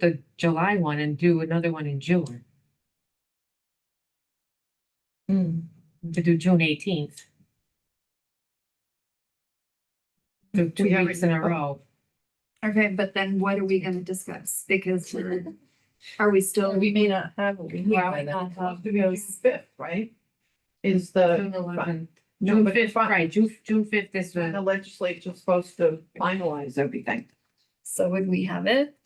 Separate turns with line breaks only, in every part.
the July one and do another one in June,
Mm.
to do June eighteenth. Do two
We already-
weeks in a row.
Okay, but then what are we gonna discuss? Because we're- are we
So
still,
we may not have.
Well, we not
Uh,
have-
Fifth, right? Is the,
June eleventh,
no,
June
but it's
fifth,
fine.
right, June, June fifth is
When the
the,
legislature's supposed to finalize everything.
so would we have it?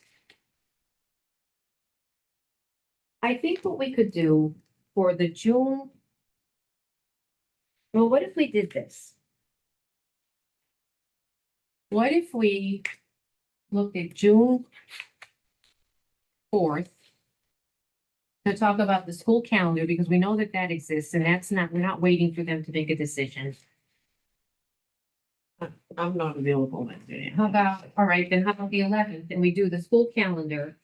I think what we could do for the June. Well, what if we did this? What if we looked at June fourth? To talk about the school calendar, because we know that that exists, and that's not, we're not waiting for them to make a decision.
I'm not available that day.
How about, all right, then how about the eleventh, and we do the school calendar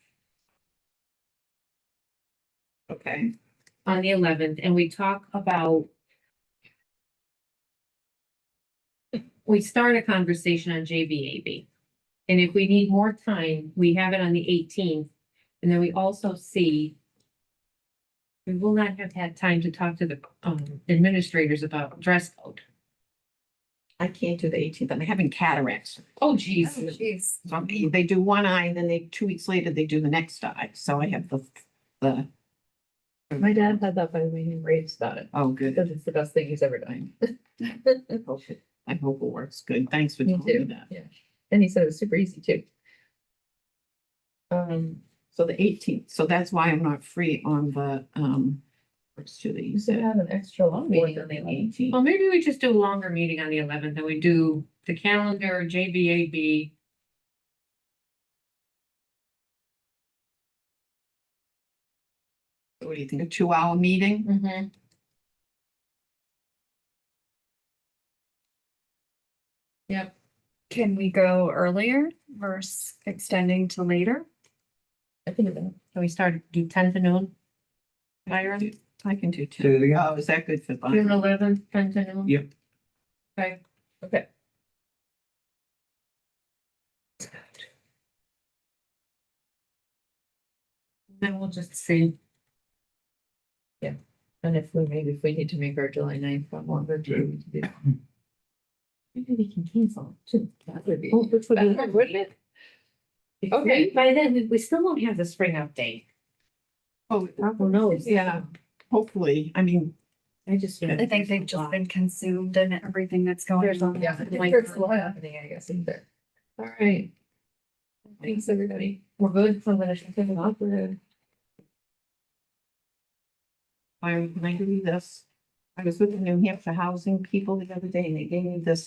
Okay,
on the eleventh, and we talk about. We start a conversation on JVAB. And if we need more time, we have it on the eighteenth, and then we also see. We will not have had time to talk to the um administrators about dress code.
I can't do the eighteenth, I'm having cataracts.
Oh,
Oh,
geez.
Jeez,
So I'm- they do one eye and then they, two weeks later, they do the next eye, so I have the, the,
My dad had that by the way, he raves about it,
oh, good.
because it's the best thing he's ever done.
I hope it I hope it works good, thanks for
Me
telling me
too.
that.
And he said it was super easy too. Um,
So the eighteenth, so that's why I'm not free on the, um, let's do the,
you should have an extra long meeting on the eleventh.
18th.
Well, maybe we just do a longer meeting on the eleventh, and we do the calendar, JVAB.
What do you think, a two-hour meeting?
Mm-hmm.
can we go earlier versus extending to later?
I think that,
Can we start, do ten to noon? Byron?
I can do
Say
two.
it again.
Oh, is that good for
June
Byron?
eleventh, ten to noon?
Yep.
Okay,
okay.
then we'll just see.
And if we, maybe if we need to make our July ninth one longer, do we need to do? Maybe we can cancel it, too. That Oh, would be. better, wouldn't it?
Okay, by then, we, we still won't have the spring update.
Oh,
Who knows?
yeah, hopefully, I mean,
I just.
I think they've just been consumed in everything that's going
There's
on.
Yeah, there's a lot happening, I guess, in there. All right. Thanks, everybody. We're good. I'm gonna shut it off. We're good.
Byron, can I give you this? I was with the New Hampshire Housing people the other day and they gave me this